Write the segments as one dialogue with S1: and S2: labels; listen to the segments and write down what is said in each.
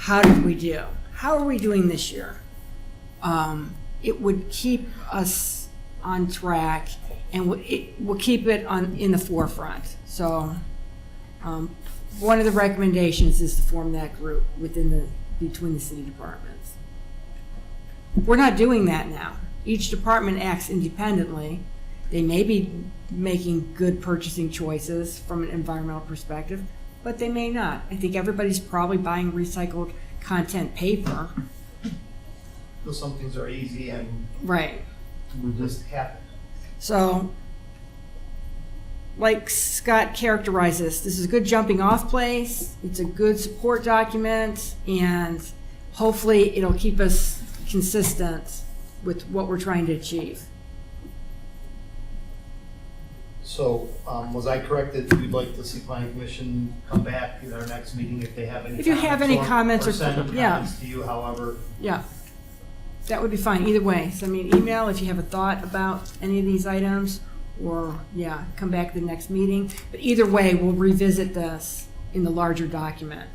S1: how did we do? How are we doing this year? Um, it would keep us on track and w- it will keep it on, in the forefront. So, um, one of the recommendations is to form that group within the, between the city departments. We're not doing that now. Each department acts independently. They may be making good purchasing choices from an environmental perspective, but they may not. I think everybody's probably buying recycled content paper.
S2: But some things are easy and
S1: Right.
S2: just happen.
S1: So, like Scott characterized this, this is a good jumping off place. It's a good support document, and hopefully, it'll keep us consistent with what we're trying to achieve.
S2: So, um, was I correct that you'd like to see planning commission come back at our next meeting if they have any?
S1: If you have any comments or-
S2: send
S1: yeah.
S2: comments to you, however,
S1: Yeah, that would be fine. Either way, send me an email if you have a thought about any of these items, or yeah, come back to the next meeting. But either way, we'll revisit this in the larger document.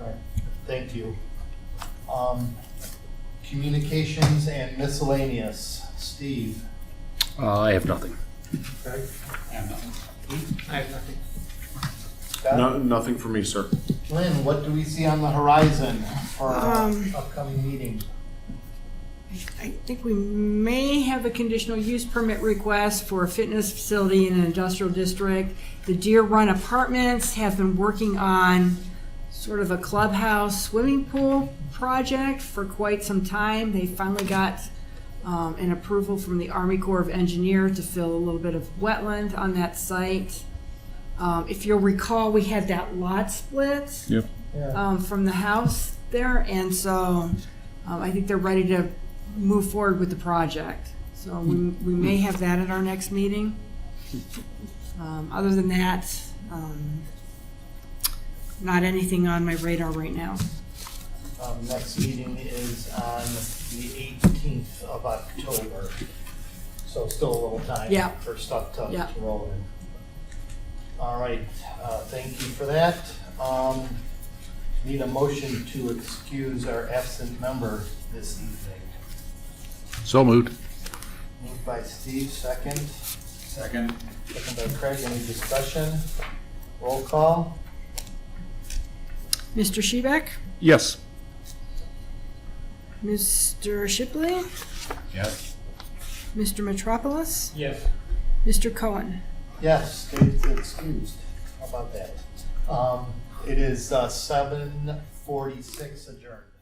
S2: Right. Thank you. Um, Communications and miscellaneous, Steve.
S3: Uh, I have nothing.
S2: Okay.
S4: No, nothing for me, sir.
S2: Lynn, what do we see on the horizon for our
S1: Um,
S2: upcoming meeting?
S1: I think we may have a conditional use permit request for a fitness facility in an industrial district. The Deer Run Apartments have been working on sort of a clubhouse swimming pool project for quite some time. They finally got um, an approval from the Army Corps of Engineer to fill a little bit of wetland on that site. Um, If you'll recall, we had that lot split
S3: Yep.
S2: Yeah.
S1: um, from the house there, and so um, I think they're ready to move forward with the project. So we, we may have that at our next meeting. Um, Other than that, um, not anything on my radar right now.
S2: Um, Next meeting is on the 18th of October, so still a little time
S1: Yeah.
S2: for stuff to
S1: Yeah.
S2: to roll in. All right, uh, thank you for that. Um, Need a motion to excuse our absent member this evening.
S3: So moved.
S2: Moved by Steve, second. Second. Second by Craig, any discussion? Roll call?
S1: Mr. Shebeck?
S3: Yes.
S1: Mr. Shipley?
S3: Yes.
S1: Mr. Metropolis?
S2: Yes.
S1: Mr. Cohen?
S2: Yes, Dave's excused. How about that? Um, It is seven uh, forty-six adjourned.